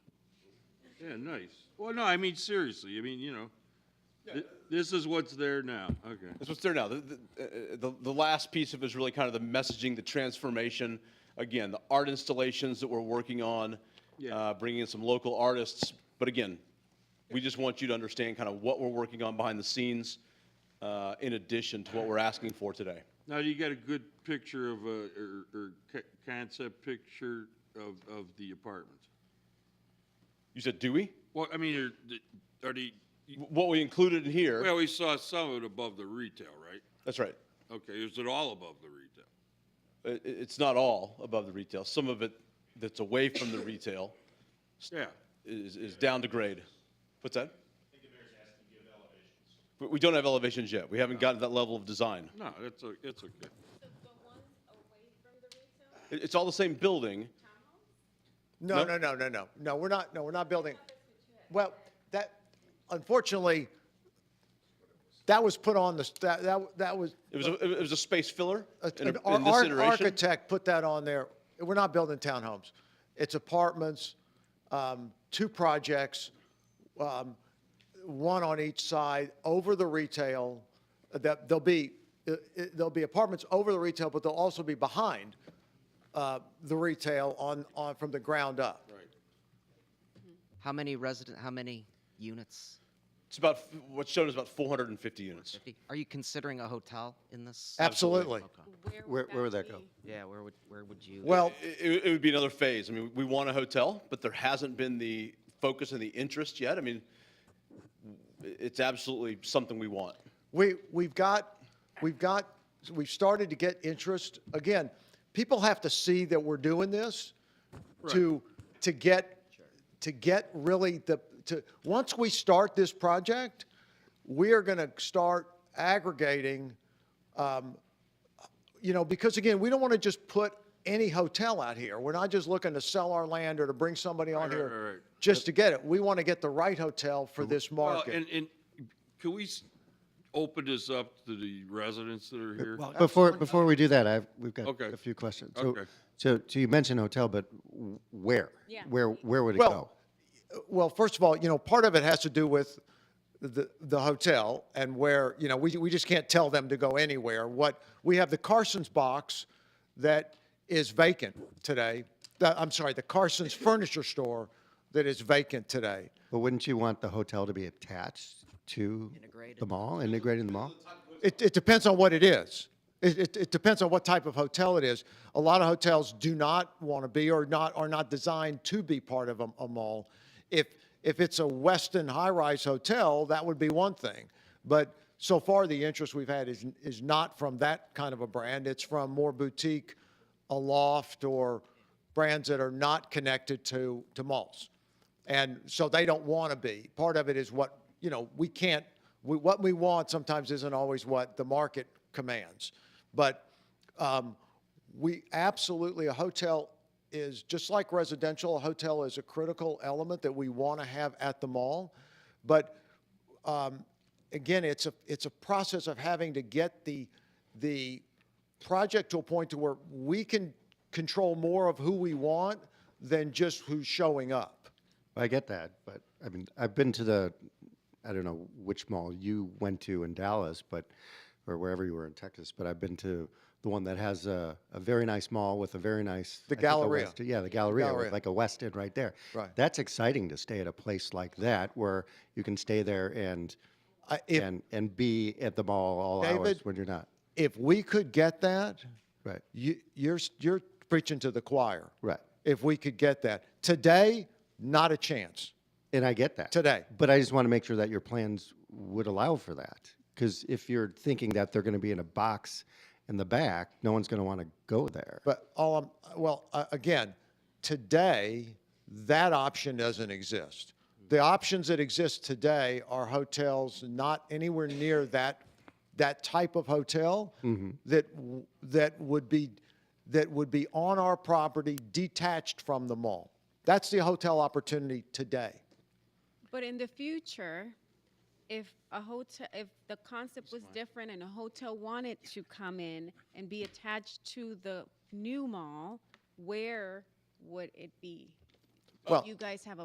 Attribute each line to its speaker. Speaker 1: Yeah, nice. Well, no, I mean, seriously, I mean, you know, thi- this is what's there now, okay.
Speaker 2: That's what's there now. The, the, uh, the, the last piece of it is really kind of the messaging, the transformation. Again, the art installations that we're working on,
Speaker 1: Yeah.
Speaker 2: uh, bringing in some local artists. But again, we just want you to understand kind of what we're working on behind the scenes uh, in addition to what we're asking for today.
Speaker 1: Now, you got a good picture of, a- or, or co- concept picture of, of the apartments?
Speaker 2: You said, do we?
Speaker 1: Well, I mean, are, the- are the,
Speaker 2: What we included in here,
Speaker 1: well, we saw some of it above the retail, right?
Speaker 2: that's right.
Speaker 1: Okay, is it all above the retail?
Speaker 2: I- i- it's not all above the retail. Some of it that's away from the retail
Speaker 1: Yeah.
Speaker 2: is, is down to grade. What's that? I think the mayor's asking to give elevations. We, we don't have elevations yet. We haven't gotten to that level of design.
Speaker 1: No, it's, o- it's okay.
Speaker 3: So the ones away from the retail
Speaker 2: It- it's all the same building.
Speaker 3: townhomes?
Speaker 4: No,
Speaker 2: No?
Speaker 4: no, no, no, no. No, we're not, no, we're not building. Well, that, unfortunately, that was put on the, s- that, that, that was,
Speaker 2: It was, a, it was a space filler
Speaker 4: a-
Speaker 2: in, a-
Speaker 4: an ar-
Speaker 2: in this
Speaker 4: ar-
Speaker 2: iteration.
Speaker 4: architect put that on there. We're not building townhomes. It's apartments, um, two projects, um, one on each side, over the retail, that there'll be, uh, uh, there'll be apartments over the retail, but they'll also be behind uh, the retail on, on, from the ground up.
Speaker 5: How many resident? How many units?
Speaker 2: It's about f- what's shown is about 450 units.
Speaker 5: Fifty? Are you considering a hotel in this?
Speaker 4: Absolutely.
Speaker 5: Okay.
Speaker 6: Where, where would that go?
Speaker 5: Yeah. Where would where would you?
Speaker 4: Well,
Speaker 2: It, it- it would be another phase. I mean, we want a hotel, but there hasn't been the focus and the interest yet. I mean, i- it's absolutely something we want.
Speaker 4: We, we've got, we've got, we've started to get interest. Again, people have to see that we're doing this to, to get, to get really the, to, once we start this project, we are going to start aggregating, um, you know, because again, we don't want to just put any hotel out here. We're not just looking to sell our land or to bring somebody on
Speaker 1: Right, right, right,
Speaker 4: here
Speaker 1: right.
Speaker 4: just to get it. We want to get the right hotel for this
Speaker 1: Well,
Speaker 4: market.
Speaker 1: and, and can we s- open this up to the residents that are here?
Speaker 6: Well, before, before we do that, I've, we've got
Speaker 1: Okay.
Speaker 6: a few questions. So-
Speaker 1: Okay.
Speaker 6: So, so you mentioned hotel, but w- where?
Speaker 3: Yeah.
Speaker 6: Where, where would it
Speaker 4: Well,
Speaker 6: go?
Speaker 4: Well, first of all, you know, part of it has to do with the, the hotel and where, you know, we, we just can't tell them to go anywhere. What, we have the Carson's box that is vacant today. The- I'm sorry, the Carson's furniture store that is vacant today.
Speaker 6: But wouldn't you want the hotel to be attached to the
Speaker 5: Integrated.
Speaker 6: mall, integrated in the mall?
Speaker 4: It, it depends on what it is. It, it, it depends on what type of hotel it is. A lot of hotels do not want to be or not are not designed to be part of a, a mall. If if it's a Weston high-rise hotel, that would be one thing. But so far, the interest we've had is is not from that kind of a brand. It's from more boutique, a loft, or brands that are not connected to to malls and so they don't want to be. Part of it is what you know we can't. We, what we want sometimes isn't always what the market commands, but um, we absolutely a hotel is just like residential. A hotel is a critical element that we want to have at the mall, but again, it's a, it's a process of having to get the, the project to a point to where we can control more of who we want than just who's showing up.
Speaker 6: I get that, but I mean, I've been to the, I don't know which mall you went to in Dallas, but, or wherever you were in Texas, but I've been to the one that has a, a very nice mall with a very nice.
Speaker 4: The
Speaker 6: I think a
Speaker 4: Galleria.
Speaker 6: West- Yeah, the Galleria, with
Speaker 4: Galleria.
Speaker 6: like a West End right there.
Speaker 4: Right.
Speaker 6: That's exciting to stay at a place like that where you can stay there and,
Speaker 4: I- If,
Speaker 6: and, and be at the mall all hours
Speaker 4: David-
Speaker 6: when you're not.
Speaker 4: if we could get that,
Speaker 6: Right,
Speaker 4: you, you're, s- you're preaching to the choir.
Speaker 6: right.
Speaker 4: If we could get that. Today, not a chance.
Speaker 6: And I get that.
Speaker 4: Today.
Speaker 6: But I just want to make sure that your plans would allow for that. Because if you're thinking that they're going to be in a box in the back, no one's going to want to go there.
Speaker 4: But all I'm, well, uh, again, today, that option doesn't exist. The options that exist today are hotels not anywhere near that, that type of hotel that, w- that would be, that would be on our property detached from the mall. That's the hotel opportunity today.
Speaker 3: But in the future, if a hotel, if the concept was different and a hotel wanted to come in and be attached to the new mall, where would it be? Do
Speaker 4: Well-
Speaker 3: You guys have a